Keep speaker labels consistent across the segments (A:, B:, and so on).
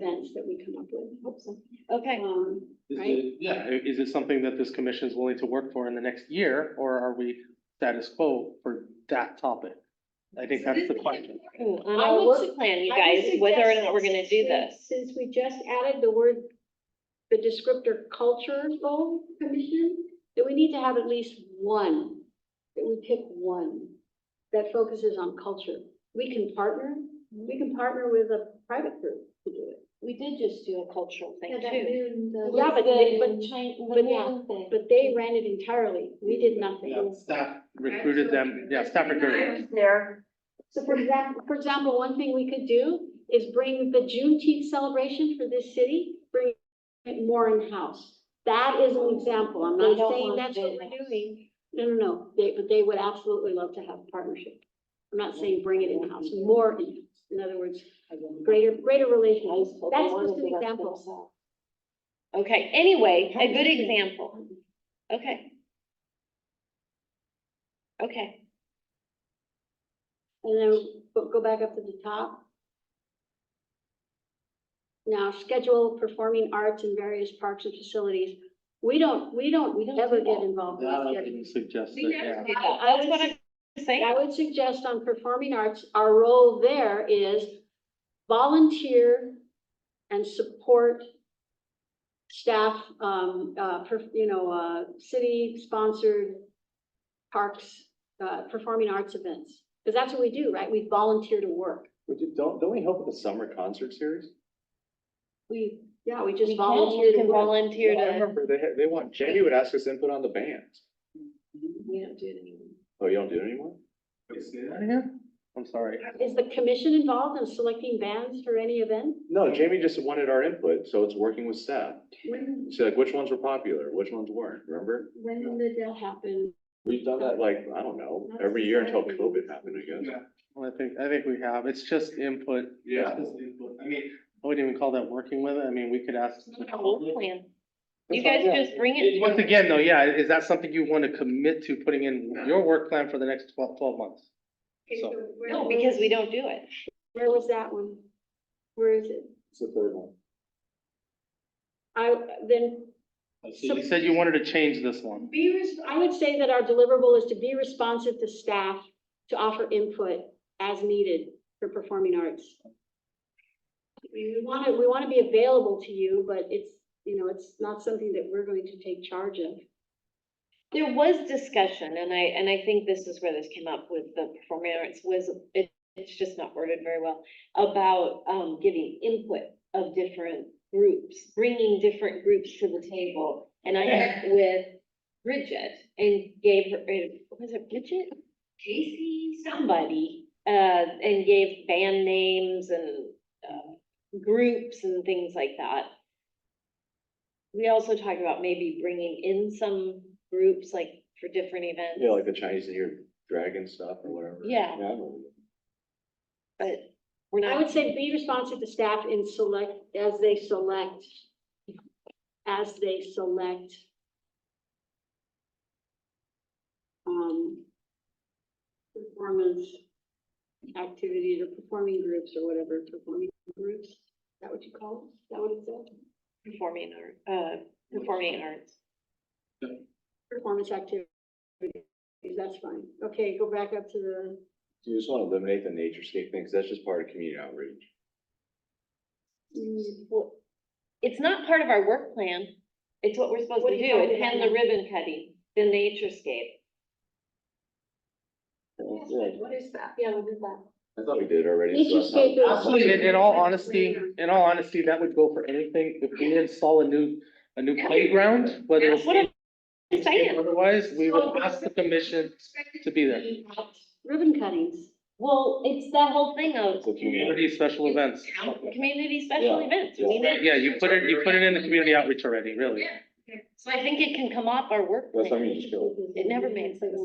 A: bench that we come up with, hope so.
B: Okay,
A: Um,
C: Is
A: Right.
C: it- Yeah, i- is it something that this commission is willing to work for in the next year, or are we status quo for that topic? I think that's the question.
B: ooh, on
A: I
B: our
A: would
B: work
A: su-
B: plan, you
A: I
B: guys,
A: would
B: whether or
A: suggest
B: not we're gonna
A: since
B: do
A: we-
B: this.
A: Since we just added the word, the descriptor culture goal commission, that we need to have at least one, that we pick one that focuses on culture. We can partner, we can partner with a private group to do it.
B: We did just do a cultural
D: Yeah,
B: thing
D: that
B: too.
D: noon, the-
A: Yeah, but they- but-
D: the Chi- the
A: but yeah,
D: noon thing.
A: But they ran it entirely. We did nothing.
C: Yeah, Staff recruited them, yeah, staff
E: I
C: recruited.
E: was there.
A: So for example, for example, one thing we could do is bring the Juneteenth celebration for this city, bring it more in-house. That is an example. I'm
D: They
A: not
D: don't
A: saying
D: want
A: that's what we're
D: business.
A: doing. No, no, no, they, but they would absolutely love to have a partnership. I'm not saying bring it in-house, more in, in other words, greater, greater relations. That's just an example.
B: Okay, anyway, a good example. Okay. Okay,
A: And then go- go back up to the top. Now, schedule performing arts in various parks and facilities. We don't, we
B: We don't
A: don't ever
B: do
A: get
B: that.
A: involved with
C: That I
A: scheduling.
C: didn't suggest
E: We
C: it,
E: never
C: yeah.
E: did.
A: I
B: that's what
A: would-
B: I'm saying.
A: I would suggest on performing arts, our role there is volunteer and support staff, um, uh, per- you know, uh, city-sponsored parks, uh, performing arts events. Because that's what we do, right? We volunteer to work.
F: Would you- Don't, don't we help with the summer concert series?
A: We, yeah, we
B: We
A: just
B: can, we
A: volunteer to
B: can
A: work.
B: volunteer
F: Well, I
B: to,
F: remember they, had- they want, Jamie would ask us input on the bands.
D: We don't do it anymore.
F: Oh, you don't do it anymore?
C: Wait, say that again? I'm sorry.
A: Is the commission involved in selecting bands for any event?
F: No, Jamie just wanted our input, so it's working with staff.
D: When,
F: She's like, which ones were popular, which ones weren't, remember?
D: when did the
A: That
D: death
A: happened.
F: We've done that like, I don't know, every year until COVID happened, I guess.
C: Well, I think, I think we have, it's just input.
F: Yeah.
C: It's just input. I mean, I wouldn't even call that working with it, I mean, we could ask. the
B: a whole
C: public.
B: plan. You
C: That's
B: guys
C: all, yeah.
B: just bring it.
C: It-
B: to
C: Once
B: us.
C: again, though, yeah, is that something you want to commit to putting in your work plan for the next twelve, twelve months? So-
B: No, because we don't do it.
A: Where was that one? Where is it?
F: It's the third one.
A: I, then
C: So You said you wanted to change this one.
A: Be, res- I would say that our deliverable is to be responsive to staff, to offer input as needed for performing arts. We want to, we want to be available to you, but it's, you know, it's not something that we're going to take charge of.
B: There was discussion, and I, and I think this is where this came up with the performing arts, was, it, it's just not worded very well, about, um, giving input of different groups, bringing different groups to the table. And I met with Bridget and gave her, uh, was it Bridget? Casey, somebody, uh, and gave band names and, uh, groups and things like that. We also talked about maybe bringing in some groups, like for different events.
F: Yeah, like the Chinese New Year dragon stuff or whatever.
B: Yeah.
F: I don't know.
B: But we're not.
A: I would say be responsive to staff in select, as they select, as they select. Um. Performance activities or performing groups or whatever, performing groups, is that what you call it? Is that what it said?
B: Performing art, uh, performing arts.
A: Performance activities, that's fine. Okay, go back up to the,
F: Do you just want to eliminate the nature scape thing? Because that's just part of community outreach.
A: mm,
B: Well, It's not part of our work plan. It's what we're supposed
A: What
B: to
A: are you
B: do,
A: talking
B: attend
A: about?
B: the ribbon cutting, the naturescape.
D: What is that?
A: yeah, we'll do that.
F: I thought we did already. so
A: Nature
F: that's not-
A: scape is-
C: Actually, in, in all honesty, in all honesty, that would go for anything, if we install a new, a new playground, whether it's.
B: That's what I'm saying.
C: Otherwise, we would ask the commission to be there,
A: Ribbon cuttings.
B: Well, it's that whole thing of
F: It's a community.
C: community special events.
B: community special
F: Yeah.
B: events. We
F: Yeah.
B: need it.
C: Yeah, you put it, you put it in the community outreach already, really.
B: So I think it can come off our work
F: That's what I
B: plan.
F: mean, just go.
B: It never made sense.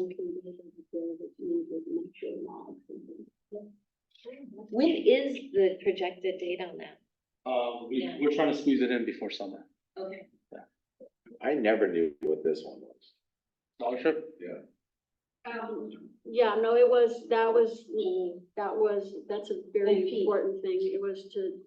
B: When is the projected date on that?
C: Um,
B: Yeah.
C: we, we're trying to squeeze it in before summer.
B: Okay.
F: I never knew what this one was.
C: Dollar trip?
A: Um, yeah, no, it was, that was, that was, that's a very
B: Repeat.
A: important thing. It was to